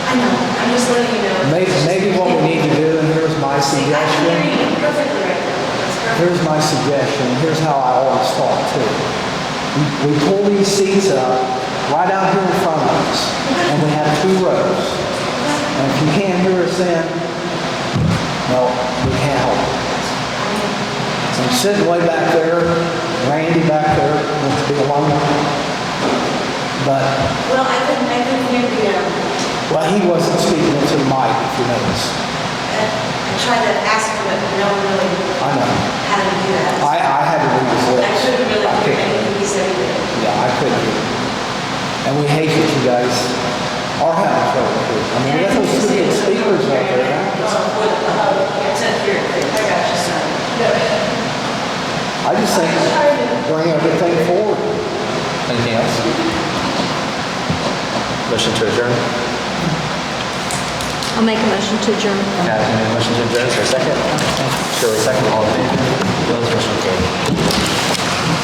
I know, I'm just letting you know. Maybe, maybe what we need to do, and here's my See, I can hear suggestion, you perfectly right now. It's perfect. here's my suggestion, here's how I always thought too. We- We pull these seats up right out here in front of us, and we have two rows. And if you can't hear us then, no, we can't help it. So I'm sitting way back there, Randy back there, wants to be alone. But Well, I couldn't, I couldn't hear the, um, Well, he wasn't speaking into the mic, if you notice. uh, I tried to ask him, but no one really I know. had to do that. I, I had to read his I lips. couldn't really I hear couldn't- anything he said either. Yeah, I couldn't hear him. And we hate that you guys are having trouble here. I mean, we got those stupid speakers out there. Well, with, uh, it's not here, I got you, son. I just think bring everything forward. Anything else? Motion to adjourn? I'll make a motion to adjourn. Kathy made a motion to adjourn, is there a second?